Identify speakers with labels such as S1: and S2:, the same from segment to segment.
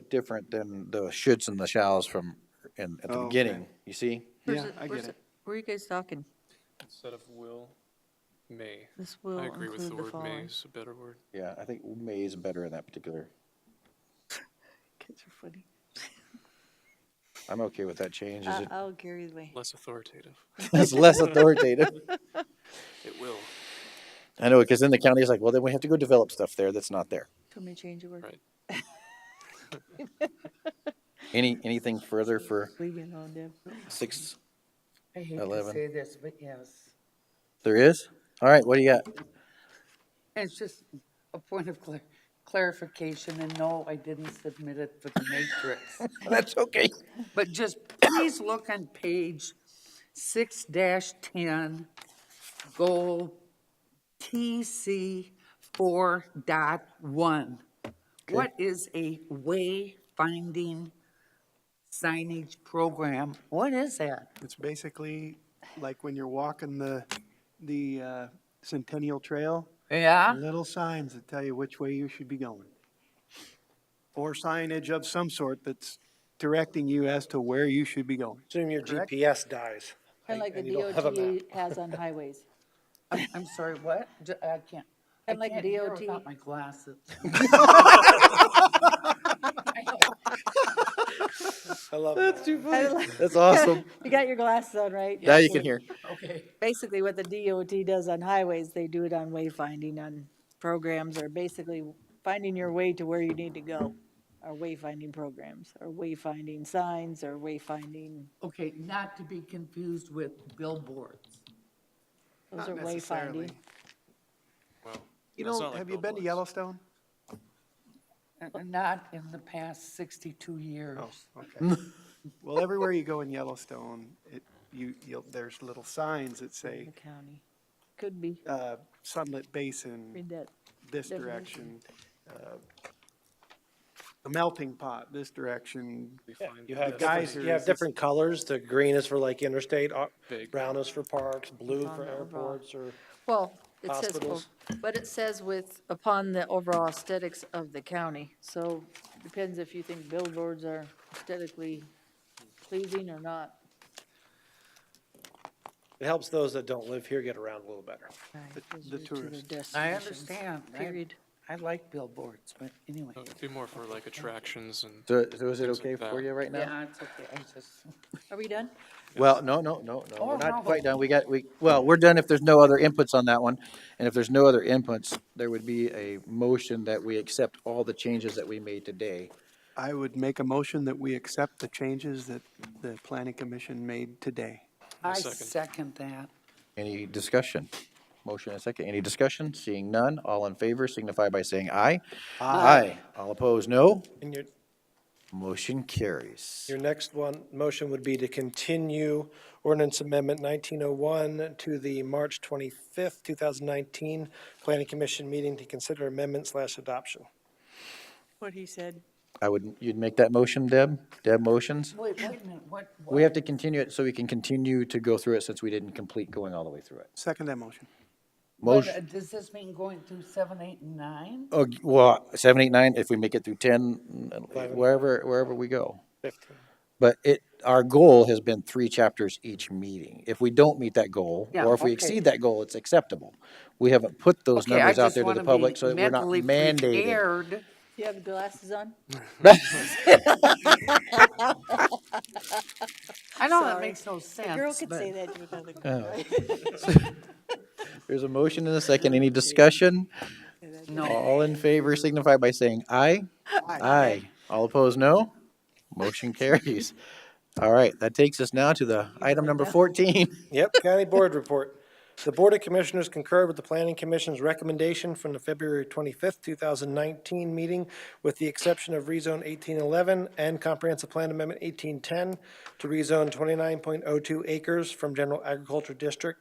S1: bit different than the shoulds and the shalls from, in, at the
S2: Oh, okay.
S1: beginning, you see?
S2: Yeah,
S3: Where's it-
S2: I
S3: where's
S2: get it.
S3: Where are you guys talking?
S4: Instead of will, may.
S3: This will
S4: I agree with
S3: include
S4: the
S3: the
S4: word may
S3: following.
S4: is a better word.
S1: Yeah, I think may is better in that particular.
S3: Kids are funny.
S1: I'm okay with that change. Is
S5: Uh,
S3: I-
S1: it,
S5: um, oh,
S3: I'll carry the way.
S4: Less authoritative.
S1: it's less authoritative.
S4: It will,
S1: I know, because then the county is like, well, then we have to go develop stuff there that's not there.
S3: Tell me to change your word.
S4: right?
S1: Any, anything further for
S3: Leave me alone, Deb.
S1: six?
S6: I hate to
S1: 11.
S6: say this, but yes.
S1: There is? All right, what do you got?
S6: And It's just a point of clar- clarification, and no, I didn't submit it for the matrix.
S1: That's okay.
S6: But just please look on page six dash ten, goal TC four dot one. What is a wayfinding signage program? What is that?
S2: It's basically like when you're walking the, the uh, Centennial Trail,
S6: Yeah?
S2: little signs that tell you which way you should be going. Or signage of some sort that's directing you as to where you should be going.
S7: Assume your
S2: Correct?
S7: GPS dies.
S5: Kind of like the
S7: and you don't have a map.
S5: DOT has on highways.
S6: I'm, I'm sorry, what? J- I can't. I
S5: Kinda like
S6: can't hear
S5: DOT.
S6: Without my glasses.
S7: I love that.
S1: That's awesome.
S5: You got your glasses on, right?
S1: Now you can hear.
S6: Okay.
S5: Basically, what the DOT does on highways, they do it on wayfinding on programs, or basically finding your way to where you need to go. Or wayfinding programs, or wayfinding signs, or wayfinding,
S6: Okay, not to be confused with billboards.
S5: those are
S2: Not necessarily.
S5: wayfinding.
S4: Wow.
S2: You
S4: That's
S2: know,
S4: not like
S2: have you been to
S4: billboards.
S2: Yellowstone?
S6: Uh, Not in the past 62 years.
S2: Oh, okay. Well, everywhere you go in Yellowstone, it, you, you'll, there's little signs that say,
S5: The county, could be,
S2: uh, Sunlit
S5: read
S2: Basin,
S5: that.
S2: this direction, uh, the melting pot, this direction,
S4: We find
S7: You
S4: that
S7: have
S2: The
S4: that's
S2: guys
S7: different,
S2: here
S7: you have
S2: is-
S7: different colors. The green is for like interstate, uh,
S4: Big.
S7: brown is for parks, blue
S5: on
S7: for
S5: the overall.
S7: airports or.
S3: Well, it says, well,
S7: Hospitals.
S3: but it says with, upon the overall aesthetics of the county.
S5: So, depends if you think billboards are aesthetically pleasing or not.
S7: It helps those that don't live here get around a little better.
S5: Those
S2: the
S5: are two of their
S6: I
S5: destinations.
S6: understand. I-
S5: Period.
S6: I like billboards, but anyway.
S2: Oh,
S4: Uh, It'd be more for like attractions and
S1: So, so is it
S4: Things like
S1: okay for
S4: that.
S1: you right now?
S6: Yeah, it's okay, I just.
S5: Are we done?
S1: Well, no, no, no, no,
S6: Oh,
S1: we're
S6: no,
S1: not
S6: but-
S1: quite done. We got, we, well, we're done if there's no other inputs on that one. And if there's no other inputs, there would be a motion that we accept all the changes that we made today.
S2: I would make a motion that we accept the changes that the planning commission made today.
S6: I
S4: second.
S6: second that.
S1: Any discussion? Motion and second. Any discussion? Seeing none, all in favor signify by saying aye. Aye. All opposed, no.
S7: And your,
S1: Motion carries.
S7: your next one, motion would be to continue ordinance amendment nineteen oh one to the March twenty-fifth, two thousand nineteen planning commission meeting to consider amendment slash adoption.
S5: What he said.
S1: I would, you'd make that motion, Deb? Deb motions?
S6: Wait, wait a minute, what?
S1: We have to continue it so we can continue to go through it since we didn't complete going all the way through it.
S2: Second that motion.
S1: Motion.
S6: what- Does this mean going through seven, eight, and nine?
S1: Oh, g- well, seven, eight, nine, if we make it through ten, wherever, wherever we go.
S7: Fifteen.
S1: But it, our goal has been three chapters each meeting. If we don't meet that goal,
S6: Yeah,
S1: or if we
S6: okay.
S1: exceed that goal, it's acceptable. We haven't put those
S6: Okay, I
S1: numbers out
S6: just
S1: there to the
S6: wanna be
S1: public, so that we're not
S6: mentally
S1: mandated.
S6: prepared.
S5: You have glasses on?
S6: I know that
S5: Sorry.
S6: makes no sense,
S5: A girl could
S6: but-
S5: say that to another girl.
S1: There's a motion and a second. Any discussion?
S6: No,
S1: All in favor signify by saying aye. Aye. All opposed, no? Motion carries. All right, that takes us now to the item number fourteen.
S7: Yep, County Board Report. The Board of Commissioners concurred with the Planning Commission's recommendation from the February 25th, 2019 meeting, with the exception of rezone 1811 and Comprehensive Plan Amendment 1810 to rezone 29.02 acres from General Agriculture District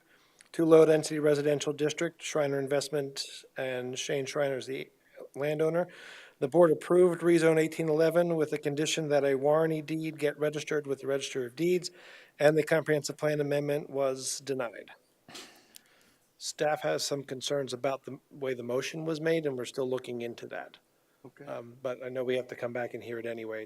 S7: to Low Density Residential District. Shriner Investment and Shane Shriner is the landowner. The board approved rezone eighteen eleven with the condition that a warranty deed get registered with the Register of Deeds, and the comprehensive plan amendment was denied. Staff has some concerns about the way the motion was made, and we're still looking into that.
S2: Okay.
S7: Um, But I know we have to come back and hear it anyway